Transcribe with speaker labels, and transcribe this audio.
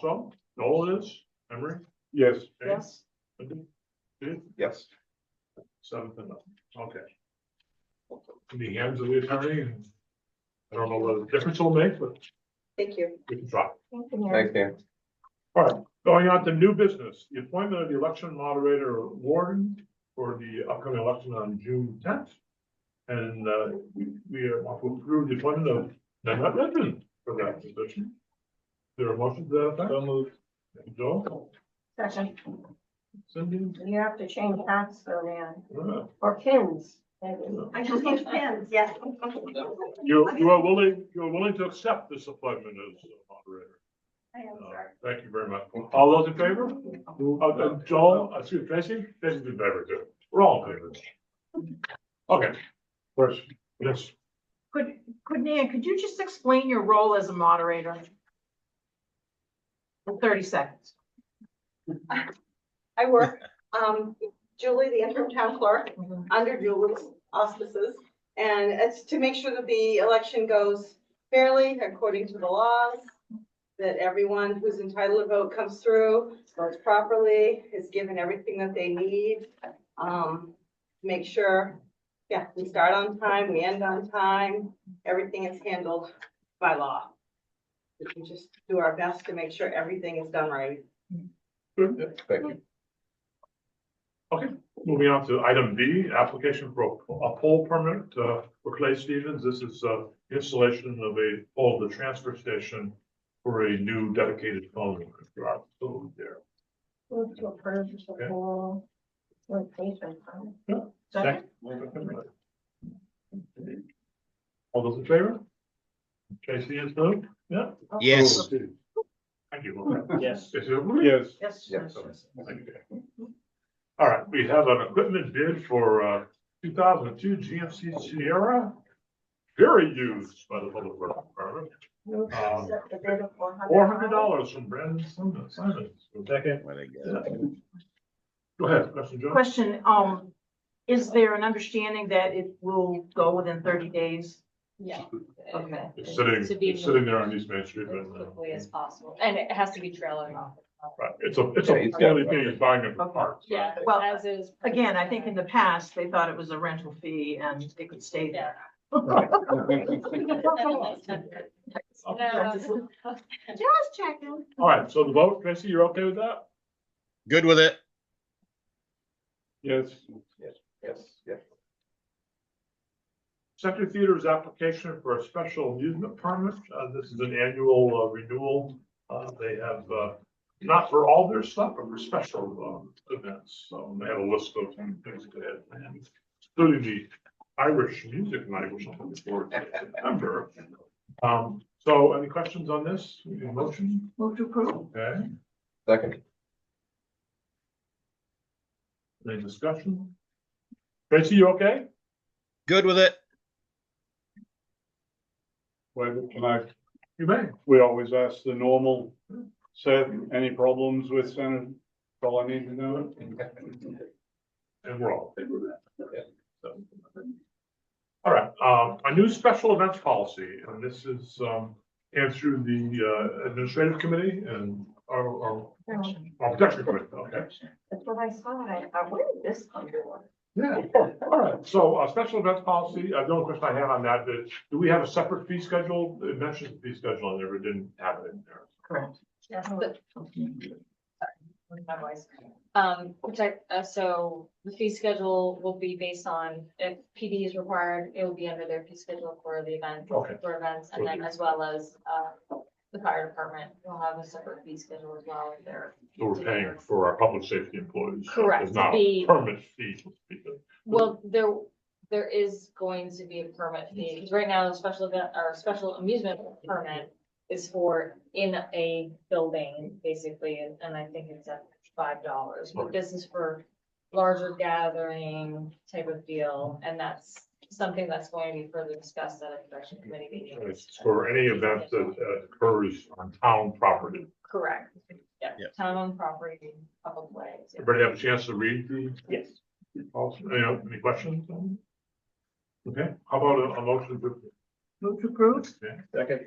Speaker 1: So, Noel is, Emery,
Speaker 2: Yes.
Speaker 1: James,
Speaker 3: Yes,
Speaker 2: Yes.
Speaker 1: seventh and up, okay. In the hands of the attorney, and I don't know what the difference will make, but
Speaker 3: thank you.
Speaker 1: we can try.
Speaker 3: Thank you, Mary.
Speaker 4: Thank you.
Speaker 1: All right, going on to new business, the appointment of the election moderator or warden for the upcoming election on June tenth. And uh, we we want to approve the appointment of Nanette Redmond for that position. There are motions to that effect? So moved. Joe,
Speaker 3: Session.
Speaker 1: Cindy,
Speaker 3: You have to change hats though, man,
Speaker 1: uh,
Speaker 3: or pins. maybe. I can change pins, yes.
Speaker 1: you you are willing, you are willing to accept this appointment as moderator?
Speaker 3: I am
Speaker 1: Uh,
Speaker 3: sorry.
Speaker 1: Thank you very much. All those in favor? Uh, uh, Joel, uh, excuse me, Tracy, Tracy's in favor too. We're all in favor. Okay. Question. Yes,
Speaker 5: Could, could Nan, could you just explain your role as a moderator? In thirty seconds.
Speaker 3: I work, um, Julie, the interim town clerk, under Julie's auspices. And it's to make sure that the election goes fairly according to the laws, that everyone who's entitled to vote comes through, votes properly, is given everything that they need. Um, make sure, yeah, we start on time, we end on time, everything is handled by law. We can just do our best to make sure everything is done right.
Speaker 1: good.
Speaker 4: Thank you.
Speaker 1: Moving on to item B, application for a pole permit uh, for Clay Stevens. This is uh, installation of a pole at the transfer station for a new dedicated phone. line. There are two there.
Speaker 3: Move to approve the
Speaker 1: Okay. Um,
Speaker 3: whole location.
Speaker 5: Second?
Speaker 1: All those in favor? Tracy is moved, yeah? Oh,
Speaker 6: Yes.
Speaker 1: Thank you.
Speaker 6: Yes.
Speaker 1: Is it approved?
Speaker 2: Yes.
Speaker 4: Yes.
Speaker 5: Yes.
Speaker 1: All right, we have an equipment bid for uh two thousand and two GMC Sierra. Very used by the public works department.
Speaker 3: Move
Speaker 1: to Um,
Speaker 3: accept the bid of four
Speaker 1: Four hundred dollars from Brandon Simon- Simons. Second.
Speaker 6: What I got.
Speaker 1: Go ahead, question, John.
Speaker 5: Question, um, is there an understanding that it will go within thirty days?
Speaker 7: Yeah.
Speaker 5: Okay.
Speaker 1: It's sitting,
Speaker 7: To be
Speaker 1: it's sitting there on
Speaker 7: moved
Speaker 1: East Main Street.
Speaker 7: As
Speaker 1: and, uh,
Speaker 7: quickly as possible, and it has to be trailing off.
Speaker 1: Right, it's a, it's a,
Speaker 4: Yeah, he's got it.
Speaker 1: it's a buying of parts.
Speaker 7: Yeah,
Speaker 5: Well,
Speaker 7: as is.
Speaker 5: Again, I think in the past, they thought it was a rental fee and it could stay there.
Speaker 7: No.
Speaker 5: Just checking.
Speaker 1: All right, so the vote, Tracy, you're okay with that?
Speaker 6: Good with it?
Speaker 2: Yes.
Speaker 4: Yes, yes.
Speaker 1: Center Theater's application for a special amusement permit. Uh, this is an annual uh, renewal. Uh, they have, uh, not for all their stuff, but for special, um, events. So they have a list of things they had planned, including the Irish music night, which I'm looking forward to in September. Um, so any questions on this? Any Motion?
Speaker 5: Move to approve.
Speaker 1: Okay.
Speaker 4: Second,
Speaker 1: Any discussion? Tracy, you okay?
Speaker 6: Good with it?
Speaker 2: Wait, can I,
Speaker 1: You may.
Speaker 2: we always ask the normal, Seth, any problems with Senate? That's All I need to know.
Speaker 1: And we're all in favor of that.
Speaker 4: Yeah.
Speaker 1: So. All right, um, a new special events policy, and this is, um, answered the, uh, administrative committee and our, our, our protection committee, okay?
Speaker 3: That's what I saw, and I thought, where did this come from?
Speaker 1: Yeah, all right, so, uh, special events policy, uh, the only question I had on that, is, do we have a separate fee schedule? It mentions the fee schedule, and never didn't have it in there.
Speaker 5: Correct.
Speaker 7: Yes, but- my voice. Um, which I, uh, so the fee schedule will be based on if PD is required, it will be under their fee schedule for the event,
Speaker 1: Okay.
Speaker 7: for events, and then as well as, uh, the fire department will have a separate fee schedule as well if they're
Speaker 1: So we're paying for our public safety employees.
Speaker 7: Correct,
Speaker 1: It's not a
Speaker 7: the-
Speaker 1: permit fee.
Speaker 7: Well, there, there is going to be a permit fee, because right now, the special event, or special amusement permit is for in a building, basically, and, and I think it's at five dollars, but this is for larger gathering type of deal, and that's something that's going to be further discussed at a production committee meeting.
Speaker 1: It's for any event that uh, occurs on town property.
Speaker 7: Correct, yeah,
Speaker 6: Yes.
Speaker 7: town on property, public ways. yeah.
Speaker 1: Everybody have a chance to read the
Speaker 2: Yes.
Speaker 1: policy? Any, any questions? on it? Okay, how about a, a motion to?
Speaker 5: Move to approve.
Speaker 1: Okay.
Speaker 4: second,